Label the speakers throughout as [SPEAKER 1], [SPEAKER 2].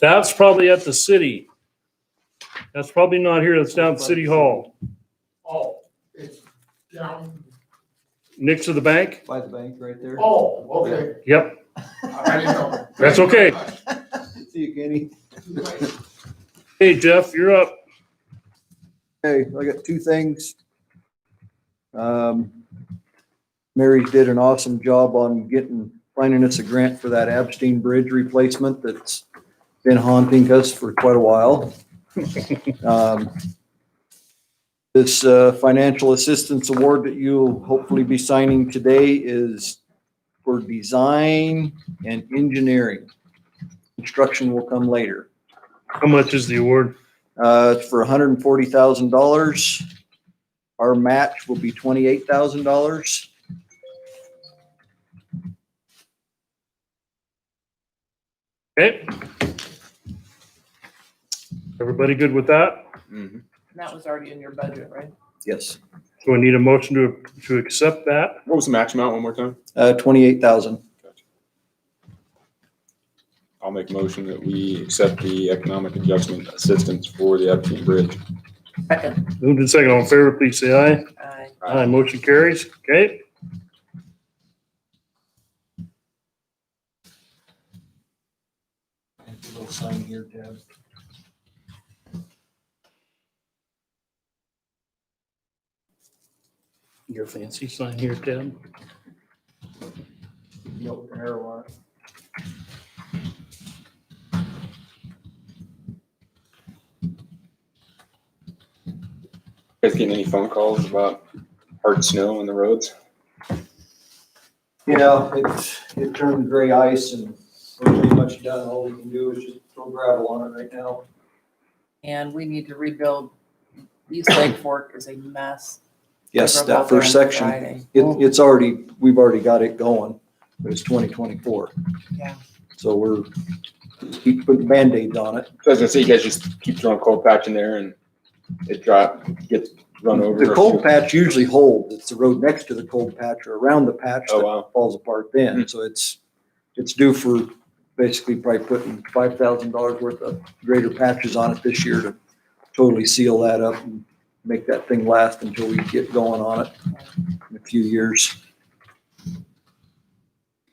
[SPEAKER 1] That's probably at the city. That's probably not here, that's down at City Hall,
[SPEAKER 2] Oh, it's down,
[SPEAKER 1] next to the bank.
[SPEAKER 3] By the bank right there.
[SPEAKER 2] oh, okay.
[SPEAKER 1] Yep,
[SPEAKER 2] I didn't know.
[SPEAKER 1] That's okay.
[SPEAKER 3] See you, Kenny.
[SPEAKER 1] hey Jeff, you're up.
[SPEAKER 3] Hey, I got two things. Um, Mary did an awesome job on getting, finding us a grant for that Abstein Bridge replacement that's been haunting us for quite a while. Um, This uh, financial assistance award that you'll hopefully be signing today is for design and engineering. Construction will come later.
[SPEAKER 1] How much is the award?
[SPEAKER 3] Uh, it's for hundred and forty thousand dollars. Our match will be twenty-eight thousand dollars.
[SPEAKER 1] Okay. Everybody good with that?
[SPEAKER 4] Mm-hmm.
[SPEAKER 5] And that was already in your budget, right?
[SPEAKER 3] Yes,
[SPEAKER 1] So we need a motion to, to accept that.
[SPEAKER 4] What was the max amount one more time?
[SPEAKER 3] uh, twenty-eight thousand.
[SPEAKER 4] I'll make a motion that we accept the economic adjustment assistance for the Epstein Bridge.
[SPEAKER 5] Second.
[SPEAKER 1] Moved and second, all in favor, please say aye.
[SPEAKER 5] Aye.
[SPEAKER 1] Aye, motion carries, okay? Your fancy sign here, Ted.
[SPEAKER 4] You Guys getting any phone calls about hard snow on the roads?
[SPEAKER 3] Yeah, it's, it turned gray ice and we're pretty much done. All we can do is just throw gravel on it right now.
[SPEAKER 5] And we need to rebuild, East Lake Fork is a mess.
[SPEAKER 3] Yes,
[SPEAKER 5] I drove out
[SPEAKER 3] that
[SPEAKER 5] there
[SPEAKER 3] first
[SPEAKER 5] on
[SPEAKER 3] section, it,
[SPEAKER 5] Friday. Oh,
[SPEAKER 3] it's already, we've already got it going, but it's twenty twenty-four.
[SPEAKER 5] Yeah.
[SPEAKER 3] So we're, keep putting Band-Aids on it.
[SPEAKER 4] So I was gonna say, you guys just keep throwing cold patch in there and it drop, gets run over. Oh,
[SPEAKER 3] The cold patch usually holds. It's the road next to the cold patch or around the patch
[SPEAKER 4] Oh,
[SPEAKER 3] that
[SPEAKER 4] wow.
[SPEAKER 3] falls apart then. So it's, it's due for basically probably putting five thousand dollars worth of greater patches on it this year to totally seal that up and make that thing last until we get going on it in a few years.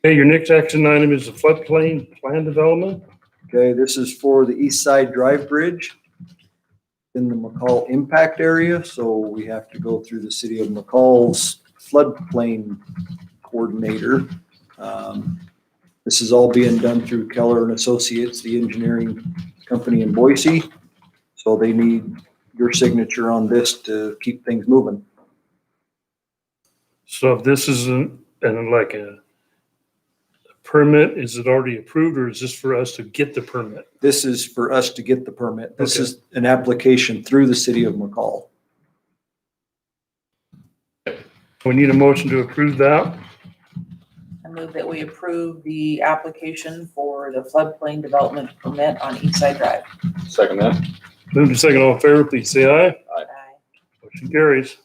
[SPEAKER 1] Okay, your next action item is the floodplain plan development.
[SPEAKER 3] Okay, this is for the East Side Drive Bridge in the McCall impact area, so we have to go through the city of McCall's floodplain coordinator. Um, This is all being done through Keller and Associates, the engineering company in Boise. So they need your signature on this to keep things moving.
[SPEAKER 1] So if this is an, and like a permit, is it already approved or is this for us to get the permit?
[SPEAKER 3] This is for us to get the permit. This is an application through the city of McCall.
[SPEAKER 1] We need a motion to approve that.
[SPEAKER 5] I move that we approve the application for the floodplain development permit on East Side Drive.
[SPEAKER 4] Second that.
[SPEAKER 1] Move to second, all in favor, please say aye.
[SPEAKER 5] Aye.
[SPEAKER 1] Motion carries.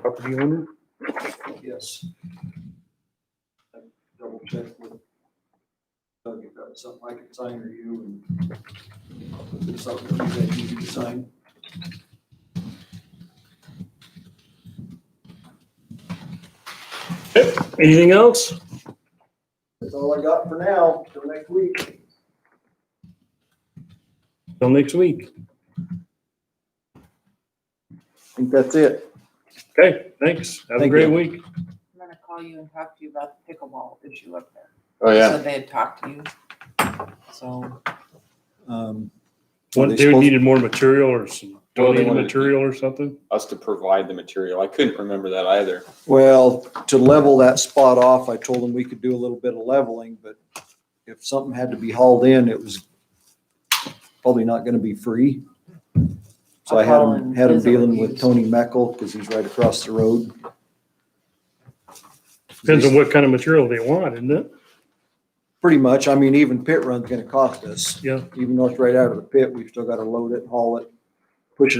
[SPEAKER 1] Property owner?
[SPEAKER 3] Yes. Double check with Doug if that's something I can sign or you and if it's something that you can sign.
[SPEAKER 1] Anything else?
[SPEAKER 3] That's all I got for now, till next week.
[SPEAKER 1] Till next week.
[SPEAKER 3] I think that's it.
[SPEAKER 1] Okay, thanks. Have a
[SPEAKER 3] Thank
[SPEAKER 1] great
[SPEAKER 3] you.
[SPEAKER 1] week.
[SPEAKER 5] I'm gonna call you and talk to you about the pickleball issue up there.
[SPEAKER 4] Oh,
[SPEAKER 5] So they had talked to you. So,
[SPEAKER 3] Um,
[SPEAKER 1] What,
[SPEAKER 3] they
[SPEAKER 1] they
[SPEAKER 3] supposed-
[SPEAKER 1] needed more material or some
[SPEAKER 4] Well, they
[SPEAKER 1] donated
[SPEAKER 4] wanted-
[SPEAKER 1] material or something?
[SPEAKER 4] Us to provide the material. I couldn't remember that either.
[SPEAKER 3] Well, to level that spot off, I told them we could do a little bit of leveling, but if something had to be hauled in, it was probably not gonna be free. So I had
[SPEAKER 5] I'll call
[SPEAKER 3] him,
[SPEAKER 5] and
[SPEAKER 3] had him
[SPEAKER 5] visit with
[SPEAKER 3] dealing with
[SPEAKER 5] you.
[SPEAKER 3] Tony Meckel, because he's right across the road.
[SPEAKER 1] Depends on what kind of material they want, isn't it?
[SPEAKER 3] Pretty much, I mean, even pit run's gonna cost us.
[SPEAKER 1] Yeah.
[SPEAKER 3] Even though it's right out of the pit, we've still gotta load it, haul it,